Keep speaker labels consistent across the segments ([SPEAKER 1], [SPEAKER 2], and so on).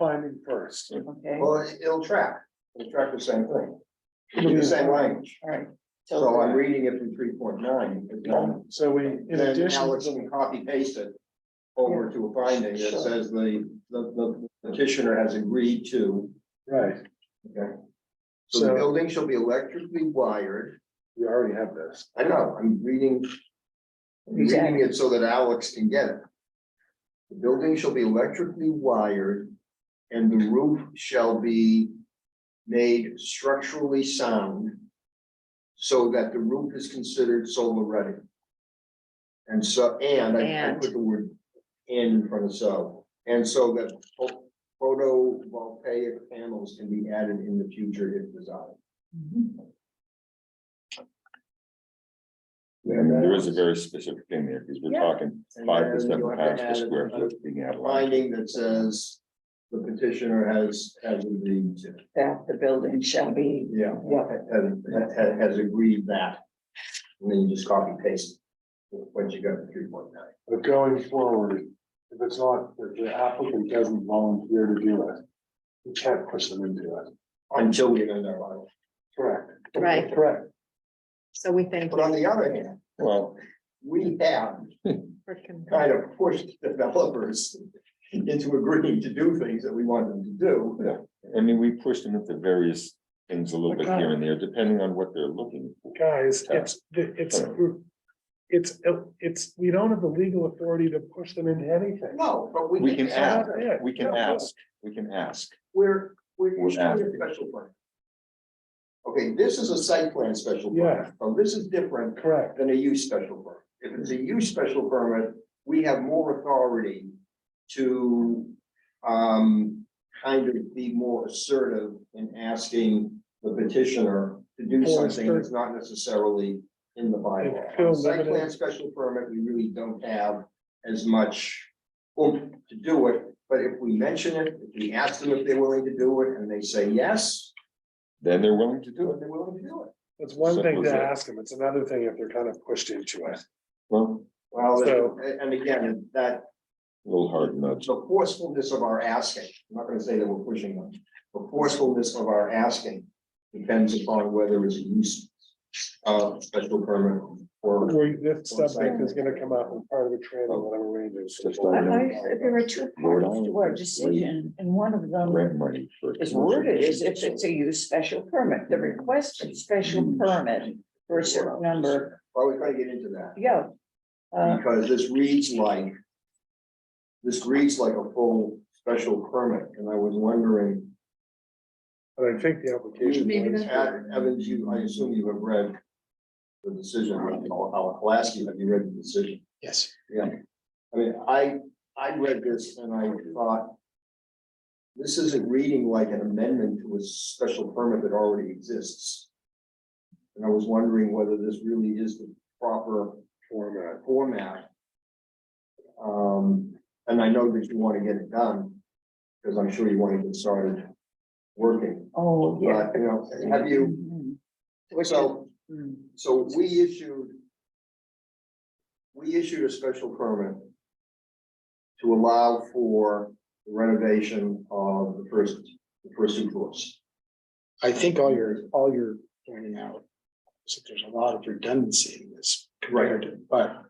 [SPEAKER 1] finding first.
[SPEAKER 2] okay, all
[SPEAKER 3] Well, it- it'll track, it'll track the same thing, it'll be the same language,
[SPEAKER 2] right.
[SPEAKER 3] so I'm reading it from three point nine.
[SPEAKER 1] So we, in
[SPEAKER 3] Then
[SPEAKER 1] addition,
[SPEAKER 3] now it's gonna copy paste it over to a finding that
[SPEAKER 2] Sure.
[SPEAKER 3] says the, the, the petitioner has agreed to.
[SPEAKER 1] right,
[SPEAKER 3] Okay. So the
[SPEAKER 1] so
[SPEAKER 3] building shall be electrically wired,
[SPEAKER 1] we already have this.
[SPEAKER 3] I know, I'm reading. I'm Reading it so that Alex can get it. The building shall be electrically wired and the roof shall be made structurally sound. So that the roof is considered solar ready. And so, and I I put the word and in front of so, and so that pho- photovoltaic panels can be added in the future if desired.
[SPEAKER 2] Mhm.
[SPEAKER 3] And
[SPEAKER 4] There is a very specific thing there, because we're
[SPEAKER 2] Yeah.
[SPEAKER 4] talking
[SPEAKER 3] And
[SPEAKER 4] five
[SPEAKER 3] then
[SPEAKER 4] percent
[SPEAKER 3] you'll have to
[SPEAKER 4] pounds per
[SPEAKER 3] add
[SPEAKER 4] square
[SPEAKER 3] another
[SPEAKER 4] foot being out of line.
[SPEAKER 3] Finding that says the petitioner has, has agreed to,
[SPEAKER 2] That the building shall be,
[SPEAKER 3] yeah,
[SPEAKER 2] yeah,
[SPEAKER 3] has, has- has agreed that. And then you just copy paste what you got to three point nine.
[SPEAKER 1] But going forward, if it's not, if the applicant doesn't volunteer to do it, we can't push them into it.
[SPEAKER 3] Until we amend our bylaw.
[SPEAKER 1] Correct.
[SPEAKER 5] Right.
[SPEAKER 1] Correct.
[SPEAKER 5] So we thank
[SPEAKER 3] But on
[SPEAKER 5] you
[SPEAKER 3] the other hand,
[SPEAKER 4] Well,
[SPEAKER 3] we have
[SPEAKER 5] for, con-
[SPEAKER 3] kind of pushed developers into agreeing to do things that we want them to do.
[SPEAKER 4] I mean, we pushed them into various things a little bit
[SPEAKER 1] Okay.
[SPEAKER 4] here and there, depending on what they're looking for.
[SPEAKER 1] Guys, it's, it's, it's, uh, it's, we don't have the legal authority to push them into anything.
[SPEAKER 3] No, but we.
[SPEAKER 4] We can ask,
[SPEAKER 1] Yeah.
[SPEAKER 4] we can
[SPEAKER 1] Yeah.
[SPEAKER 4] ask, we can ask.
[SPEAKER 3] We're, we're.
[SPEAKER 4] We're
[SPEAKER 3] issuing a Special plan. Okay, this is a site plan special
[SPEAKER 1] Yeah.
[SPEAKER 3] permit, so this is different
[SPEAKER 1] Correct.
[SPEAKER 3] than a use special permit. If it's a use special permit, we have more authority to um kind of be more assertive in asking the petitioner to do
[SPEAKER 1] Or
[SPEAKER 3] something that's not necessarily in the bylaw.
[SPEAKER 1] Fill
[SPEAKER 3] On Site
[SPEAKER 1] limited-
[SPEAKER 3] plan special permit, we really don't have as much oomph to do it, but if we mention it, if we ask them if they're willing to do it, and they say yes,
[SPEAKER 4] Then they're willing to do it.
[SPEAKER 3] they're willing to do it.
[SPEAKER 1] It's one thing
[SPEAKER 4] Simple as
[SPEAKER 1] to
[SPEAKER 4] that.
[SPEAKER 1] ask them, it's another thing if they're kind of pushed into it.
[SPEAKER 4] Well,
[SPEAKER 3] Well,
[SPEAKER 1] So-
[SPEAKER 3] and and again, that
[SPEAKER 4] a little hard nudge.
[SPEAKER 3] the forcefulness of our asking, I'm not gonna say that we're pushing them, the forcefulness of our asking depends upon whether it's a use of special permit or.
[SPEAKER 1] Where this subject is gonna come up and part of the training, whatever we do.
[SPEAKER 4] Oh. Just
[SPEAKER 2] I,
[SPEAKER 4] like-
[SPEAKER 2] I, there are two parts to our decision, and one of them
[SPEAKER 4] Grant money for.
[SPEAKER 2] is worded as if it's a use special permit, the request for special
[SPEAKER 3] Mm.
[SPEAKER 2] permit for a certain number,
[SPEAKER 3] Well, we gotta get into that,
[SPEAKER 2] yeah. Uh,
[SPEAKER 3] because this reads like, this reads like a full special permit, and I was wondering,
[SPEAKER 1] But I think the application.
[SPEAKER 5] Maybe that's-
[SPEAKER 3] Ad- Evans, you, I assume you have read the decision, I'll, I'll ask you, have you read the decision?
[SPEAKER 1] Yes.
[SPEAKER 3] I mean, I, I read this and I thought. This isn't reading like an amendment to a special permit that already exists. And I was wondering whether this really is the proper
[SPEAKER 1] Format.
[SPEAKER 3] format. Um, and I know that you want to get it done, because I'm sure you want to get started working,
[SPEAKER 2] oh,
[SPEAKER 3] but,
[SPEAKER 2] yeah. Mm-hmm.
[SPEAKER 3] you know, have you,
[SPEAKER 2] Which is- Mm.
[SPEAKER 3] so. So we issued. We issued a special permit. To allow for renovation of the first, the first two floors.
[SPEAKER 6] I think all you're, all you're pointing out is that there's a lot of redundancy in this compared to, but.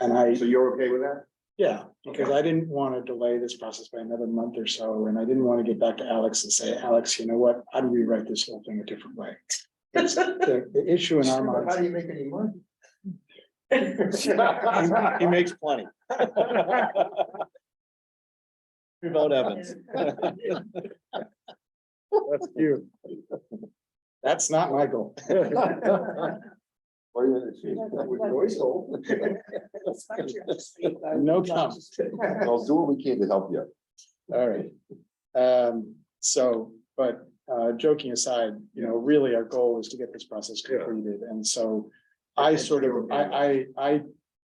[SPEAKER 6] And I,
[SPEAKER 3] So you're okay with that?
[SPEAKER 6] yeah, because I didn't want to delay this process by another month or so, and I didn't want to get back to Alex and say, Alex, you know what, I'd rewrite this whole thing a different way. It's The the issue in our
[SPEAKER 3] How
[SPEAKER 6] minds,
[SPEAKER 3] do you make any money?
[SPEAKER 6] he- he makes plenty. Vote Evans.
[SPEAKER 1] That's you.
[SPEAKER 6] That's not my goal.
[SPEAKER 4] Wait a minute, see.
[SPEAKER 3] With voice old.
[SPEAKER 2] It's not your dispute, though.
[SPEAKER 6] No comment.
[SPEAKER 4] I'll do what we can to help you.
[SPEAKER 6] All right. Um, so, but, uh, joking aside, you know, really our goal is to get this process
[SPEAKER 1] Yeah.
[SPEAKER 6] completed, and so. I
[SPEAKER 3] Okay,
[SPEAKER 6] sort of,
[SPEAKER 3] sure.
[SPEAKER 6] I, I, I,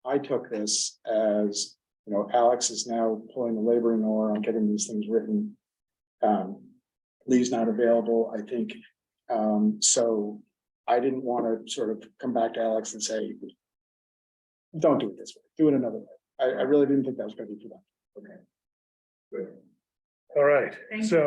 [SPEAKER 6] I took this as, you know, Alex is now pulling the laboring oar on getting these things written. Um, Lee's not available, I think, um, so I didn't want to sort of come back to Alex and say. Don't do it this way, do it another way, I, I really didn't think that was gonna be productive.
[SPEAKER 3] Good.
[SPEAKER 2] All right,
[SPEAKER 6] Thank you.
[SPEAKER 2] so